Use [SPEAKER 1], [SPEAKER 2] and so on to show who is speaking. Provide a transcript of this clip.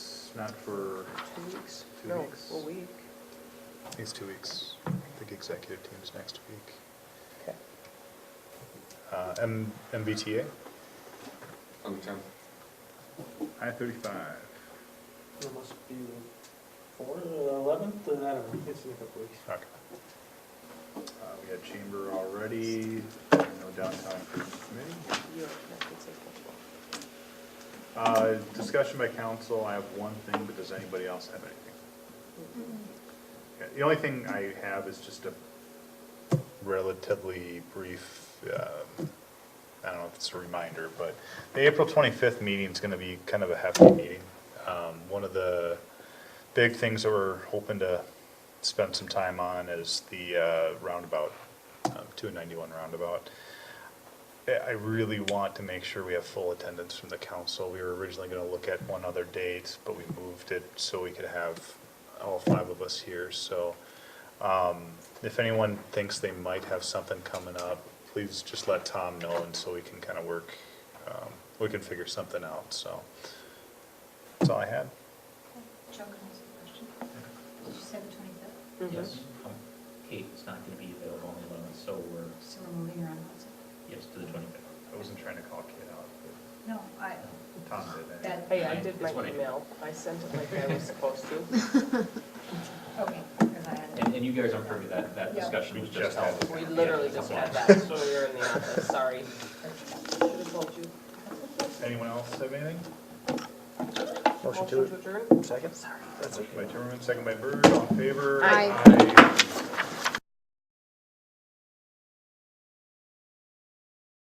[SPEAKER 1] It's not for,
[SPEAKER 2] Two weeks?
[SPEAKER 1] Two
[SPEAKER 2] No,
[SPEAKER 1] weeks.
[SPEAKER 2] a week.
[SPEAKER 1] these two weeks. I think executive team's next week.
[SPEAKER 2] Okay.
[SPEAKER 1] Uh, M- MBTA?
[SPEAKER 3] On the tenth.
[SPEAKER 1] I-35.
[SPEAKER 4] It must be the fourth or the eleventh, and I don't know, it's in a couple weeks.
[SPEAKER 1] Okay. Uh, We had chamber already, no downtown improvement committee.
[SPEAKER 2] Yeah, that could take a while.
[SPEAKER 1] Uh, Discussion by council, I have one thing, but does anybody else have anything? Okay, The only thing I have is just a relatively brief, um, I don't know if it's a reminder, but the April 25th meeting's going to be kind of a hefty meeting. Um, One of the big things that we're hoping to spend some time on is the uh, roundabout, um, 291 roundabout. I I really want to make sure we have full attendance from the council. We were originally going to look at one other date, but we moved it so we could have all five of us here. So um, if anyone thinks they might have something coming up, please just let Tom know and so we can kind of work, um, we can figure something out, so. That's all I had.
[SPEAKER 5] Joe, can I ask a question? Did you say the twenty-fifth?
[SPEAKER 2] Mm-hmm.
[SPEAKER 6] Yes, um, Kate is not going to be available on the 11th, so we're,
[SPEAKER 5] So we're moving around, what's it?
[SPEAKER 6] yes, to the 25th.
[SPEAKER 1] I wasn't trying to call Kate out,
[SPEAKER 5] No, I,
[SPEAKER 1] but Tom did
[SPEAKER 5] that,
[SPEAKER 2] Hey, I did my
[SPEAKER 6] That's what I did.
[SPEAKER 2] email. I sent it like I was supposed to.
[SPEAKER 5] okay, because I had
[SPEAKER 6] And,
[SPEAKER 5] it.
[SPEAKER 6] and you guys aren't privy, that, that
[SPEAKER 5] Yeah.
[SPEAKER 6] discussion
[SPEAKER 1] We
[SPEAKER 6] was
[SPEAKER 1] just
[SPEAKER 6] just
[SPEAKER 1] had
[SPEAKER 6] held.
[SPEAKER 1] it.
[SPEAKER 2] We
[SPEAKER 6] Yeah,
[SPEAKER 2] literally
[SPEAKER 6] a
[SPEAKER 2] just
[SPEAKER 6] couple
[SPEAKER 2] had
[SPEAKER 6] hours.
[SPEAKER 2] that when we were in the office, sorry. Should have told you.
[SPEAKER 1] Anyone else have anything?
[SPEAKER 2] Motion to adjourn?
[SPEAKER 1] Second by Timmerman, second by Bird, all in favor?
[SPEAKER 2] Aye.
[SPEAKER 1] Aye.